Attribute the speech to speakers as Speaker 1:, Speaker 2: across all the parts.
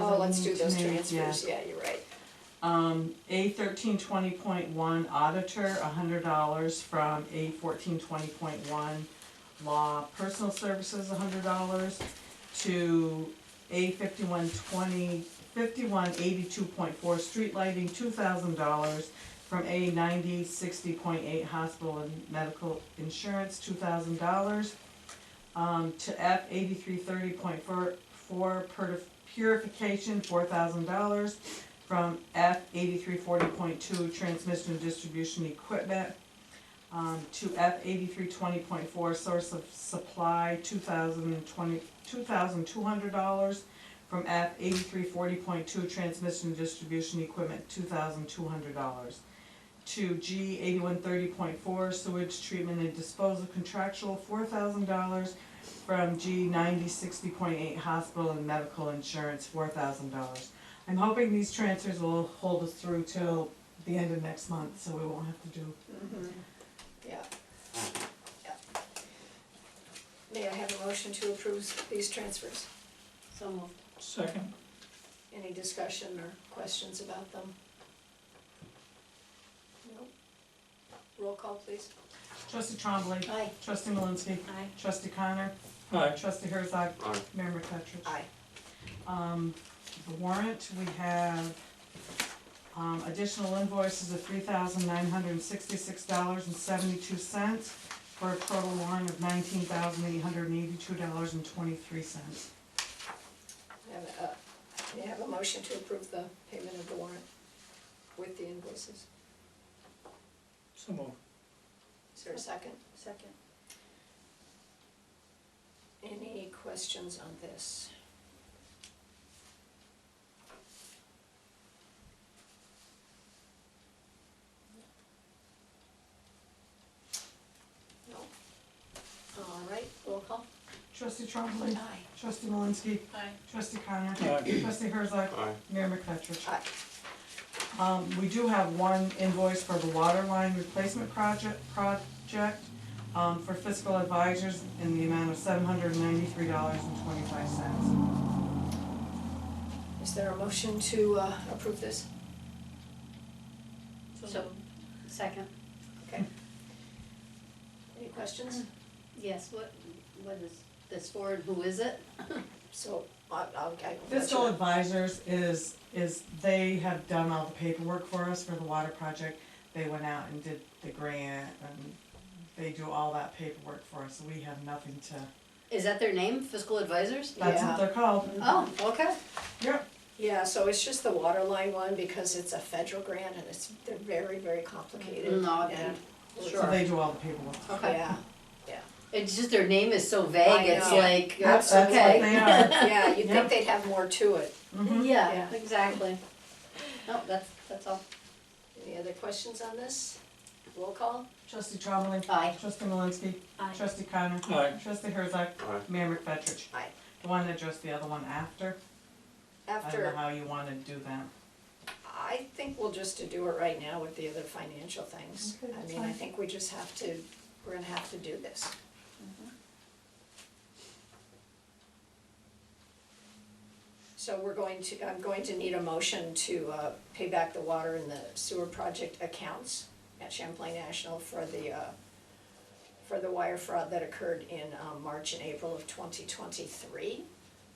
Speaker 1: Oh, let's do
Speaker 2: need to
Speaker 1: those
Speaker 2: make,
Speaker 1: transfers, yeah, you're right.
Speaker 2: Um, A thirteen twenty point one auditor, hundred dollars from A fourteen twenty point one law personal services, hundred dollars to A fifty-one twenty, fifty-one eighty-two point four street lighting, two thousand dollars from A ninety sixty point eight hospital and medical insurance, two thousand dollars um, to F eighty-three thirty point four, four purification, four thousand dollars from F eighty-three forty point two, transmission and distribution equipment, um, to F eighty-three twenty point four, source of supply, two thousand twenty, two thousand two hundred dollars, from F eighty-three forty point two, transmission and distribution equipment, two thousand two hundred dollars, to G eighty-one thirty point four, sewage treatment and disposal contractual, four thousand dollars, from G ninety sixty point eight, hospital and medical insurance, four thousand dollars. I'm hoping these transfers will hold us through till the end of next month, so we won't have to do.
Speaker 1: Mhm. Yeah. Yeah. May I have a motion to approve these transfers?
Speaker 3: So moved.
Speaker 4: Second,
Speaker 1: Any discussion or questions about them? No? Roll call, please.
Speaker 2: Trustee Trombley,
Speaker 1: Aye.
Speaker 2: trustee Malinsky,
Speaker 3: Aye.
Speaker 2: trustee Connor,
Speaker 4: aye,
Speaker 2: trustee Herzog,
Speaker 5: Aye.
Speaker 2: Mayor McFetrich.
Speaker 1: Aye.
Speaker 2: Um, the warrant, we have, um, additional invoices of three thousand nine hundred and sixty-six dollars and seventy-two cents for a total warrant of nineteen thousand eight hundred and eighty-two dollars and twenty-three cents.
Speaker 1: And, uh, may I have a motion to approve the payment of the warrant with the invoices?
Speaker 4: so moved.
Speaker 1: Is there a second?
Speaker 3: Second.
Speaker 1: Any questions on this? No? All right, roll call.
Speaker 2: Trustee Trombley, trustee Malinsky,
Speaker 3: Aye.
Speaker 2: trustee Connor,
Speaker 4: Aye.
Speaker 2: trustee Herzog,
Speaker 5: Aye.
Speaker 2: Mayor McFetrich.
Speaker 1: Aye.
Speaker 2: Um, we do have one invoice for the water line replacement project, project, um, for fiscal advisors in the amount of seven hundred and ninety-three dollars and twenty-five cents.
Speaker 1: Is there a motion to uh, approve this?
Speaker 3: So, second.
Speaker 1: Any questions?
Speaker 3: Yes, what, what is this for and who is it?
Speaker 1: So, I- I'll, I.
Speaker 2: Fiscal advisors is, is, they have done all the paperwork for us for the water project. They went out and did the grant and they do all that paperwork for us, so we have nothing to,
Speaker 3: Is that their name, fiscal advisors?
Speaker 2: that's
Speaker 1: Yeah.
Speaker 2: what they're called,
Speaker 3: Oh, okay.
Speaker 2: yep.
Speaker 1: Yeah, so it's just the water line one because it's a federal grant and it's, they're very, very complicated.
Speaker 3: No,
Speaker 1: Yeah.
Speaker 2: So
Speaker 3: sure.
Speaker 2: they do all the paperwork.
Speaker 3: Mm, Okay.
Speaker 1: Yeah,
Speaker 3: It's just their name is so
Speaker 1: I
Speaker 3: vague, it's
Speaker 1: know.
Speaker 3: like,
Speaker 1: Yep,
Speaker 2: That's
Speaker 3: that's
Speaker 2: what
Speaker 3: okay. Mm-hmm.
Speaker 2: they are.
Speaker 1: yeah, you'd
Speaker 2: Yep.
Speaker 1: think they'd have more to it.
Speaker 2: Mhm.
Speaker 3: Yeah,
Speaker 1: Yeah.
Speaker 3: exactly. No, that's, that's all.
Speaker 1: Any other questions on this? Roll call?
Speaker 2: Trustee Trombley.
Speaker 3: Aye.
Speaker 2: Trustee Malinsky.
Speaker 3: Aye.
Speaker 2: Trustee Connor.
Speaker 4: Aye.
Speaker 2: Trustee Herzog.
Speaker 5: Aye.
Speaker 2: Mayor McFetrich.
Speaker 1: Aye.
Speaker 2: The one that addressed the other one after. I don't know
Speaker 1: After,
Speaker 2: how you wanna do that.
Speaker 1: I think we'll just do it right now with the other financial things.
Speaker 2: Okay,
Speaker 1: I
Speaker 2: that's
Speaker 1: mean, I
Speaker 2: fine.
Speaker 1: think we just have to, we're gonna have to do this.
Speaker 2: Mm-hmm.
Speaker 1: So we're going to, I'm going to need a motion to uh, pay back the water and the sewer project accounts at Champlain National for the, uh, for the wire fraud that occurred in um, March and April of 2023.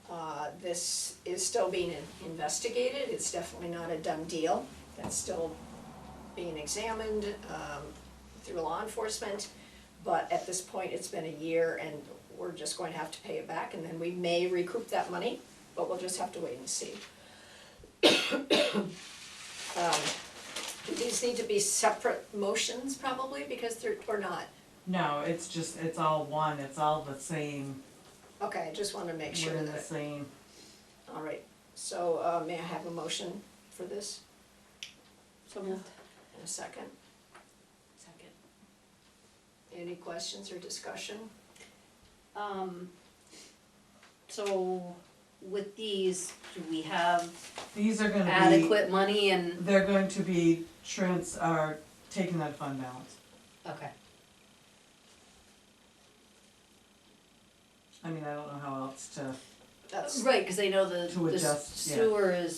Speaker 1: Uh, This is still being in- investigated, it's definitely not a done deal. That's still being examined um, through law enforcement. But at this point, it's been a year and we're just going to have to pay it back and then we may recoup that money, but we'll just have to wait and see. Um, Do these need to be separate motions probably because they're, or not?
Speaker 2: No, it's just, it's all one, it's all the same,
Speaker 1: Okay, I just want to make
Speaker 2: we're
Speaker 1: sure
Speaker 2: in the
Speaker 1: that,
Speaker 2: same.
Speaker 1: all right. So uh, may I have a motion for this
Speaker 3: So moved.
Speaker 1: in a second?
Speaker 3: Second.
Speaker 1: Any questions or discussion?
Speaker 3: Um, so with these, do we have
Speaker 2: These are gonna be,
Speaker 3: adequate money and,
Speaker 2: they're going to be trans, are taken out of fund balance.
Speaker 3: okay.
Speaker 2: I mean, I don't know how else to,
Speaker 6: that's.
Speaker 2: Right, cause they know the,
Speaker 3: To
Speaker 2: the
Speaker 3: adjust, yeah.
Speaker 2: sewer is